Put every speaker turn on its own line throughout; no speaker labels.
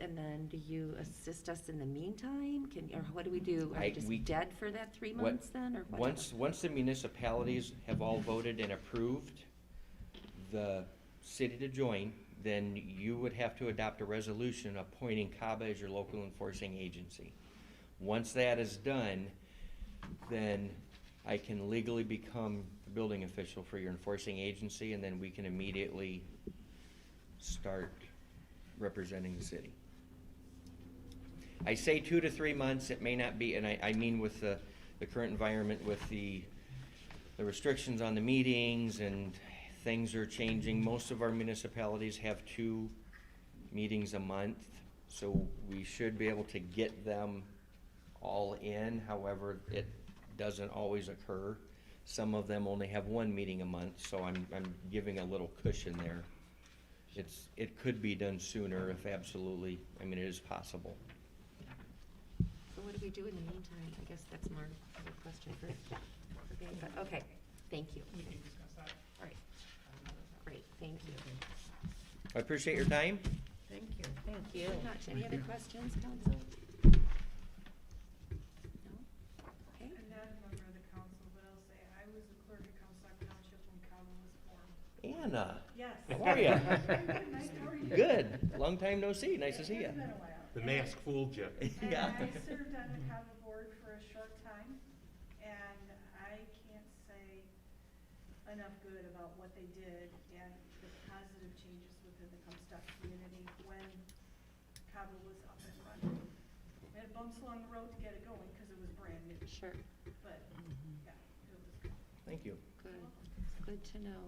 and then do you assist us in the meantime? Can, or what do we do? Are
I-
we just
we-
dead for that three
What-
months then, or whatever?
Once, once the municipalities have all voted and approved the city to join, then you would have to adopt a resolution appointing CABA as your local enforcing agency. Once that is done, then I can legally become the building official for your enforcing agency, and then we can immediately start representing the city. I say two to three months, it may not be, and I, I mean with the, the current environment with the, the restrictions on the meetings and things are changing. Most of our municipalities have two meetings a month, so we should be able to get them all in. However, it doesn't always occur. Some of them only have one meeting a month, so I'm, I'm giving a little cushion there. It's, it could be done sooner if absolutely, I mean, it is possible.
So what do we do in the meantime? I guess that's more of a question for, for Dave, but, okay, thank you.
We can discuss that.
All right, great, thank you.
I appreciate your time.
Thank you.
Thank you. Much. Any other questions, council? No? Okay,
I'm not a member of the council, but I'll say I was a clerk at Comstock Township when Cabo was formed.
Anna,
Yes.
how are ya?
I'm good, nice, how are you?
Good. Long time no see. Nice to see you.
It's been a while.
The mask fooled you.
And
Yeah.
I served on the Cabo board for a short time, and I can't say enough good about what they did and the positive changes within the Comstock community when Cabo was up and running. We had bumps along the road to get it going because it was brand new,
sure,
but, yeah, it was good.
Thank you.
good, good to know.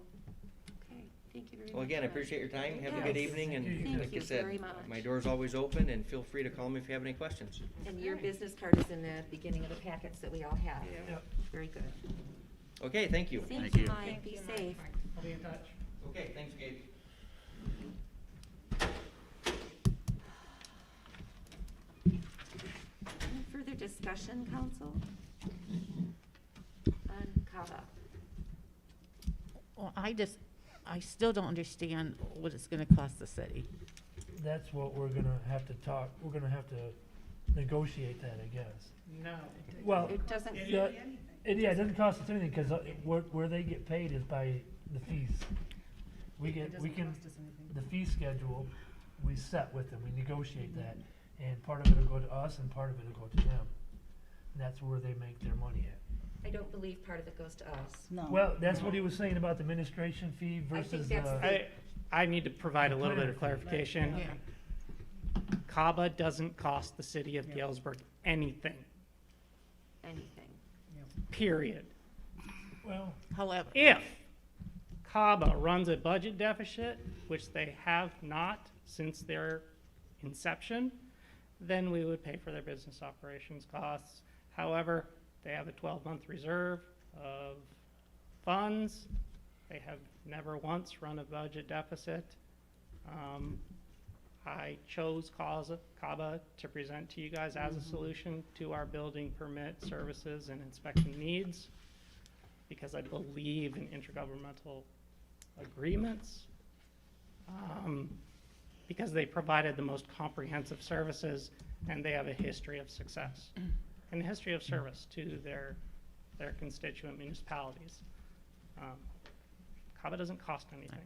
Okay, thank you very much.
Well, again,
Mike.
I appreciate your time. Have a good
Yes.
evening and
Thank
like I
you
said,
very much.
my door's always open and feel free to call me if you have any questions.
And your business card is in the beginning of the packets that we all have. Very good.
Okay, thank you.
Thank you, Mike, be safe.
I'll be in touch.
Okay, thanks, Gabe.
Any further discussion, council? On CAVA?
Well, I just, I still don't understand what it's gonna cost the city.
that's what we're gonna have to talk, we're gonna have to negotiate that, I guess.
No.
Well,
It doesn't,
It-
Oh. yeah,
Anything.
it, yeah, it doesn't cost us anything, cause uh, where, where they get paid is by the fees. We get, we can, the fee schedule, we set with them, we negotiate that, and part of it'll go to us and part of it'll go to them. And that's where they make their money at.
I don't believe part of it goes to us.
No.
Well, that's what he was saying about the administration
I
fee
think
versus
that's
the,
I, I need to provide a little bit of clarification.
Yeah.
CABA doesn't cost the city of
Yeah.
Galesburg anything,
Anything.
period.
well,
However,
If CABA runs a budget deficit, which they have not since their inception, then we would pay for their business operations costs. However, they have a 12-month reserve of funds. They have never once run a budget deficit. Um, I chose CASA CABA to present to you guys as a solution to our building permit services and inspection needs because I believe in intergovernmental agreements. um, Because they provided the most comprehensive services and they have a history of success and a history of service to their, their constituent municipalities. Um, CABA doesn't cost anything.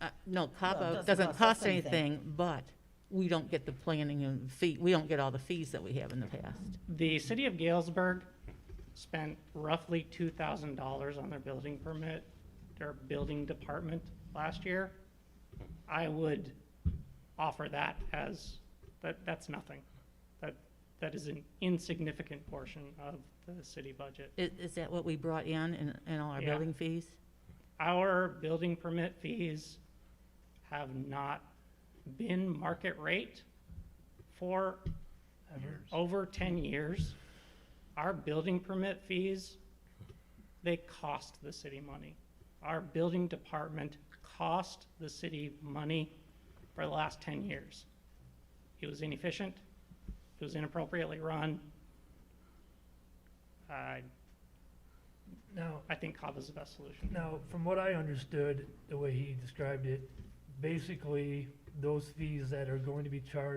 uh, no,
Well, it
Cabo
doesn't
doesn't
cost
cost
us anything.
anything, but we don't get the planning and fee, we don't get all the fees that we have in the past.
The city of Galesburg spent roughly two thousand dollars on their building permit, their building department last year. I would offer that as, that, that's nothing. That, that is an insignificant portion of the city budget.
Is, is that what we brought in, in, in all our
Yeah.
building fees?
Our building permit fees have not been market rate for over ten years. Our building permit fees, they cost the city money. Our building department cost the city money for the last ten years. It was inefficient, it was inappropriately run. I,
now,
I think CAVA is the best solution.
Now, from what I understood, the way he described it, basically, those fees that are going to be charged